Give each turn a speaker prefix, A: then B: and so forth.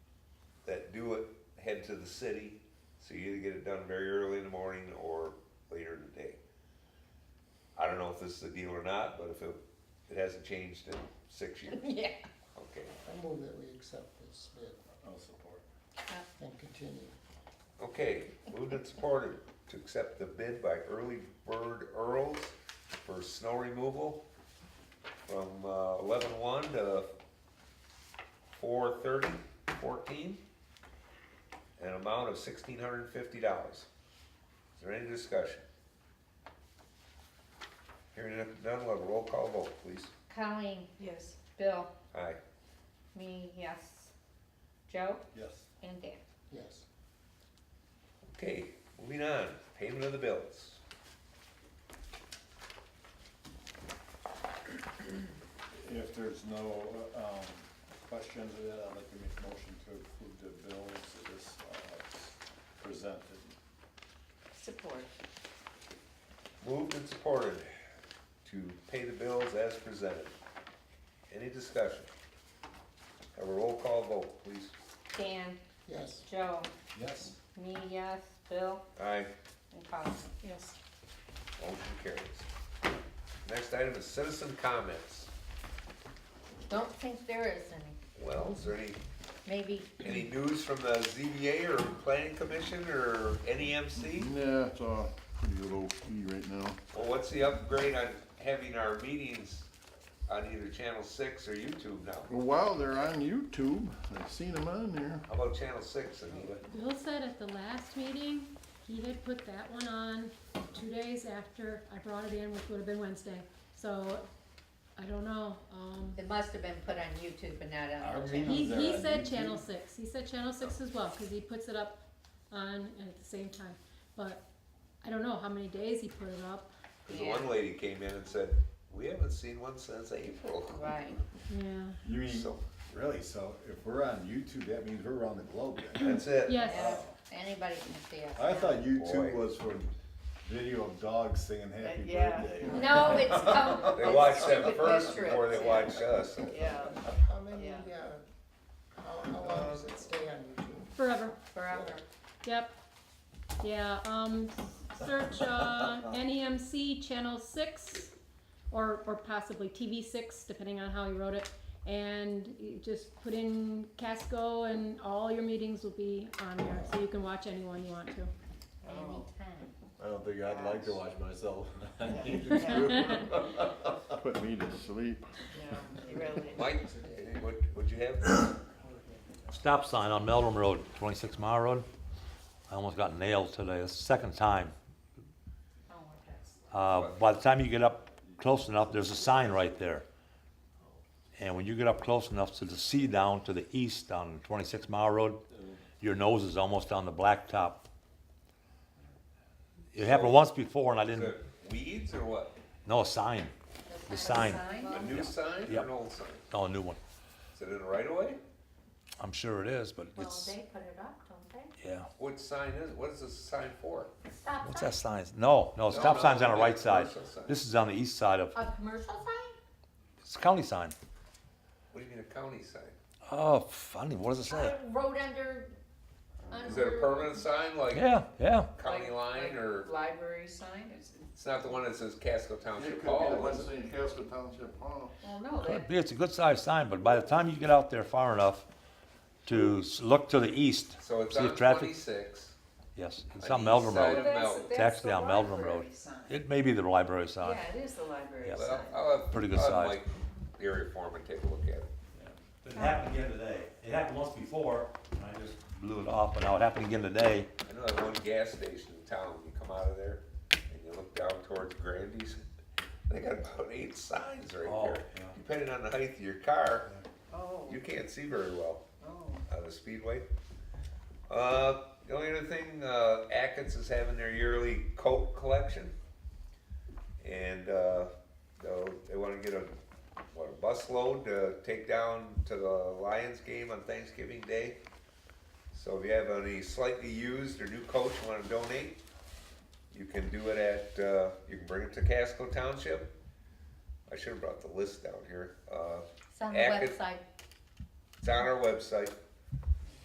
A: that do it head to the city, so you either get it done very early in the morning or later in the day. I don't know if this is the deal or not, but if it, it hasn't changed in six years,
B: Yeah.
A: okay,
C: I move that we accept this bid
D: I'll support.
C: and continue.
A: okay. Moved and supported to accept the bid by Early Bird Earls for snow removal from eleven-one to four thirty, fourteen, an amount of sixteen hundred and fifty dollars. Is there any discussion? Hearing none, we'll have a roll call vote, please.
B: Colleen,
E: Yes.
B: Bill,
A: Aye.
B: me, yes. Joe
D: Yes.
B: and Dan.
C: Yes.
A: Okay, moving on, payment of the bills.
D: If there's no, um, questions of that, I'd like to make a motion to approve the bills as, uh, presented.
E: Support.
A: Moved and supported to pay the bills as presented. Any discussion? Have a roll call vote, please.
B: Dan,
C: Yes.
B: Joe,
D: Yes.
B: me, yes, Bill
A: Aye.
B: and Colleen.
E: Yes.
A: Motion carries. Next item is citizen comments.
B: Don't think there is any.
A: Well, is there any,
B: Maybe
A: any news from the ZBA or planning commission or E NEMC?
F: Yeah, it's uh, pretty good old key right now.
A: Well, what's the upgrade on having our meetings on either Channel Six or YouTube now?
F: Well, while they're on YouTube, I've seen them on there.
A: How about Channel Six, Anita?
G: Bill said at the last meeting, he had put that one on two days after I brought it in, which would have been Wednesday. So, I don't know, um,
B: it must have been put on YouTube and not on.
D: Our
B: the
D: meeting-
B: channel.
G: he,
D: there
G: he
D: on
G: said
D: YouTube?
G: channel six, he said channel six as well, cause he puts it up on and at the same time. But I don't know how many days he put it up,
A: Cause the one
B: Yeah.
A: lady came in and said, we haven't seen one since April.
B: Right.
G: yeah.
D: You mean,
A: So,
D: really, so if we're on YouTube, that means we're around the globe then?
A: that's it.
G: Yes,
B: Yeah, Anybody can see us.
D: I thought
A: Boy.
D: YouTube was for video of dogs singing happy
E: Yeah.
D: birthday.
B: No, it's come.
A: They
B: it's
A: watched them
B: stupid
A: first
B: web trips,
A: before they
B: yeah.
A: watched us.
E: Yeah.
C: How many, uh,
E: Yeah.
C: how, how long does it stay on YouTube?
G: forever.
B: Forever.
G: Yep. Yeah, um, search, uh, NEMC Channel Six, or, or possibly TV Six, depending on how you wrote it. And you just put in Casco and all your meetings will be on there, so you can watch anyone you want to.
B: Oh. Anytime.
D: I don't think I'd like to watch myself on YouTube.
E: Yeah.
F: Put me to sleep.
E: No, you really.
A: Mike, eh, what, what'd you have?
H: Stop sign on Meldrum Road, 26 mile road. I almost got nailed today, it's the second time.
B: Oh, my gosh.
H: Uh, By the time you get up close enough, there's a sign right there. And when you get up close enough to the sea down to the east on 26 mile road, your nose is almost on the blacktop. It happened once before and I
A: Is
H: didn't,
A: it weeds or what?
H: no, a sign, The sign.
A: A new sign or
H: Yep.
A: an old sign?
H: no, a new one.
A: Is it in the right of way?
H: I'm sure it is, but
B: Well,
H: it's,
B: they put it up, don't
H: yeah.
A: What sign is, it? what is this sign for?
B: they? Stop
H: What's
B: sign.
H: that sign? No, no, stop
A: no,
H: sign's on the
A: no,
H: right side.
A: commercial sign.
H: This is on the east side of,
B: A commercial sign?
H: it's a county sign.
A: What do you mean a county sign?
H: Oh, funny. What does it say?
B: Uh, Road under, under.
A: Is it a permanent sign like
H: Yeah, yeah.
A: county
E: Like-
A: line
E: like
A: or,
E: Library sign, is it?
A: it's not the one that says Casco Township
F: the
A: Hall,
F: one
A: is it?
F: saying Casco Township Hall.
E: Well, no,
H: Could
E: that,
H: be. It's a good sized sign, but by the time you get out there far enough to s- look to the east,
A: So it's
H: See
A: on
H: the traffic?
A: twenty-six.
H: yes, it's
A: On the
H: on Meldrum
A: east side
H: Road.
A: of-
E: that's,
A: Mel-
E: that's
H: Taxi
E: the
H: down Meldrum
E: library
H: Road.
E: sign.
H: It may be the library sign.
E: Yeah, it is the library
H: Yeah.
E: sign.
A: Well, I'll have,
H: Pretty good
A: I'll have
H: size.
A: Mike, the area foreman, take a look at it.
H: It happened again today. It happened once before, and I just blew it off, but now it happened again today.
A: I know that one gas station in town, you come out of there and you look down towards Grandy's, they got about eight signs right
H: Oh,
A: there.
H: yeah.
A: Depending on the height of your car,
E: Oh,
A: you can't see very well
E: oh.
A: on the speedway. Uh, the only other thing, uh, Atkins is having their yearly coat collection. And, uh, they'll- they wanna get a, what, a busload to take down to the Lions game on Thanksgiving Day. So if you have any slightly used or new coats you wanna donate, you can do it at, uh, you can bring it to Casco Township. I should've brought the list down here, uh,
B: It's on the
A: Active-
B: website.
A: it's on our website,